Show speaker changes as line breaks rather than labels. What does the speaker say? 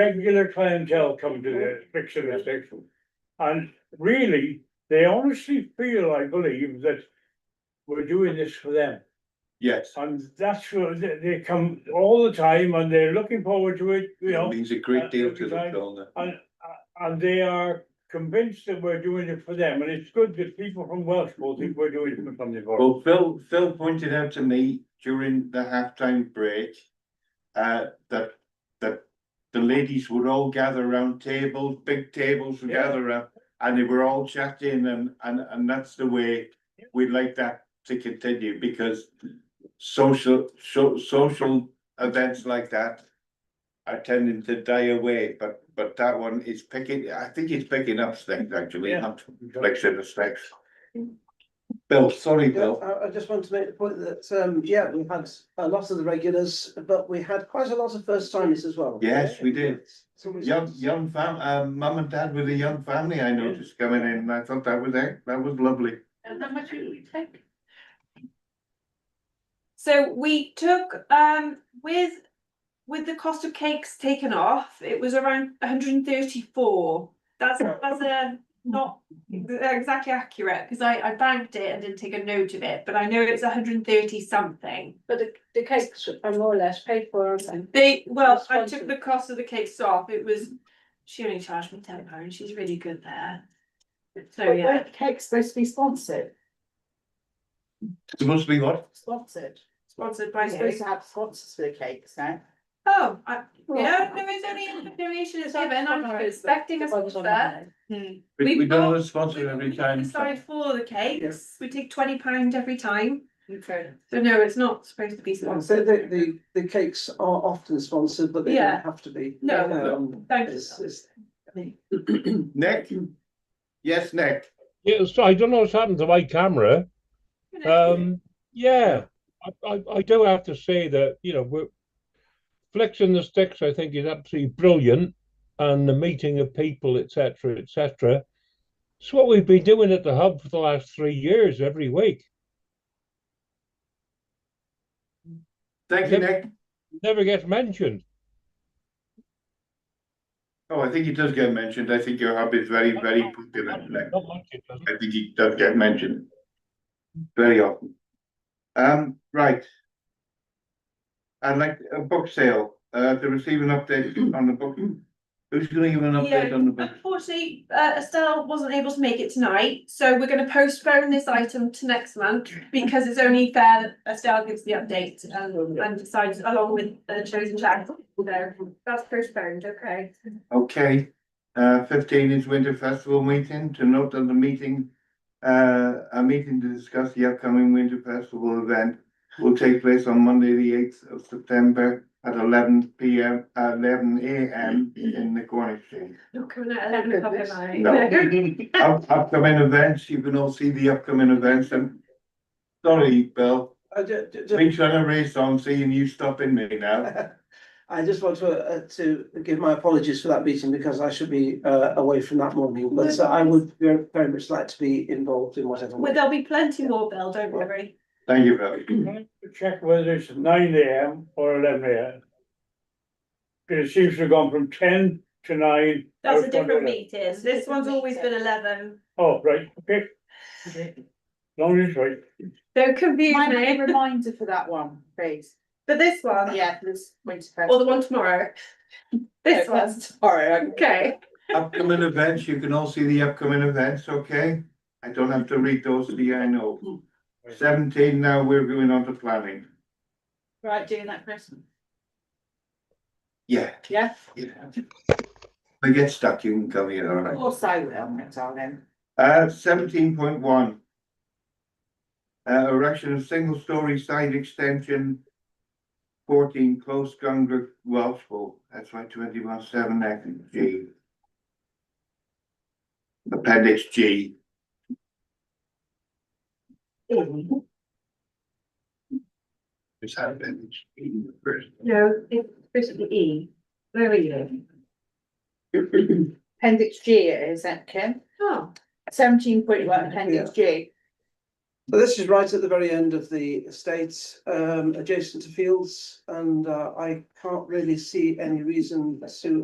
regular clientele come to the fixing the station. And really, they honestly feel, I believe, that we're doing this for them.
Yes,
And that's what they, they come all the time and they're looking forward to it, you
it
know,
means a
uh,
great deal to
design-
them, don't
and,
it?
and they are convinced that we're doing it for them. And it's good that people from Welshpool think we're doing it for something for them.
Well, Phil, Phil pointed out to me during the halftime break. Uh, that, that the ladies would all gather around tables, big tables would
Yeah.
gather around. And they were all chatting and, and, and that's the way we'd like that to continue because. Social, so, social events like that. Are tending to die away, but, but that one is picking, I think it's picking up things actually,
Yeah.
not reflection of sex. Bill, sorry,
Yeah,
Bill.
I, I just want to make the point that, um, yeah, we had a lot of the regulars, but we had quite a lot of first timers as well.
Yes, we did.
So we-
Young, young fam, uh, mum and dad with a young family I noticed coming in. and I thought that was it. That was lovely.
And how much did we take?
So we took um with with the cost of cakes taken off, it was around hundred and thirty-four. That's that's a not exactly accurate because I I banked it and didn't take a note of it, but I know it's hundred and thirty something.
But the, the cakes are more or less paid for, aren't they?
They, well,
That's
I
expensive.
took the cost of the cakes off, it was, she only charged me ten pounds, she's really good there. So,
But
Oh, yeah,
weren't cakes supposed to be sponsored,
It must be what?
sponsored.
sponsored by
We're supposed
you.
to have sponsors for the cakes now.
Oh, I, yeah, no, it's only a donation it's given, I'm expecting a sponsor. Hmm.
We,
We've
we don't
got-
have a sponsor every time.
Sorry for the cakes, we take twenty pound every time,
Okay.
so no, it's not supposed to be
So
sponsored.
the, the, the cakes are often sponsored, but they
Yeah.
don't have to be.
No.
Um,
Thank you.
It's, it's,
Nick? Yes, Nick.
Yeah, so I don't know what's happened to my camera. Um, yeah, I, I, I do have to say that, you know, we're flexing the sticks, I think, is absolutely brilliant. And the meeting of people, etc., etc. It's what we've been doing at the hub for the last three years, every week.
Thank you, Nick.
Never gets mentioned.
Oh, I think he does get mentioned. I think your hub is very, very popular, Nick.
Not much, it doesn't.
I think he does get mentioned. Very often. Um, right. I'd like a book sale, uh, to receive an update on the book. Who's gonna give an update
Yeah.
on the book?
Unfortunately, uh, Estelle wasn't able to make it tonight, so we're gonna postpone this item to next month because it's only fair that Estelle gives the update and, and decides along with the chosen chat. So that's postponed, okay.
Okay, uh, fifteen is Winter Festival meeting, to note that the meeting, uh, a meeting to discuss the upcoming Winter Festival event will take place on Monday, the eighth of September at eleven P M, uh, eleven A M in the Cornish Exchange.
Not coming out at eleven o'clock at night.
No. Up- Upcoming events, you can all see the upcoming events and, sorry, Bill,
I ju- ju- ju-
been trying to race on, seeing you stopping me now.
I just want to, uh, to give my apologies for that meeting because I should be, uh, away from that morning, but uh, I would very, very much like to be involved in whatever. way.
Well, there'll be plenty more, Bill, don't worry.
Thank you, Bill.
Can I Check whether it's nine AM or eleven AM. 'Cause It seems to have gone from ten to nine. I
That's a
was wondering-
different meeting, this one's always been eleven.
Oh, right, okay. Long as it's right.
Don't confuse
Might be
me.
a reminder for that one, please.
For this one?
Yeah, this winter festival.
Or the one tomorrow? This one,
Sorry.
okay.
Upcoming events, you can all see the upcoming events, okay? I don't have to read those to you, I know. Seventeen now, we're going on to planning.
Right, doing that Christmas.
Yeah,
Yeah,
yeah. We get stuck, you can come here, all
of
right?
course I will, my darling.
Uh, seventeen point one. Uh, erection of single-story side extension. Fourteen close Gundrick Welshpool, that's why twenty-one seven X G. Appendix G. Is that appendix G the first?
No, it's basically E. Where are you?
Appendix G it is that Kim?
Oh,
Seventeen point one, appendix G.
So this is right at the very end of the estate, um, adjacent to fields, and, uh, I can't really see any reason to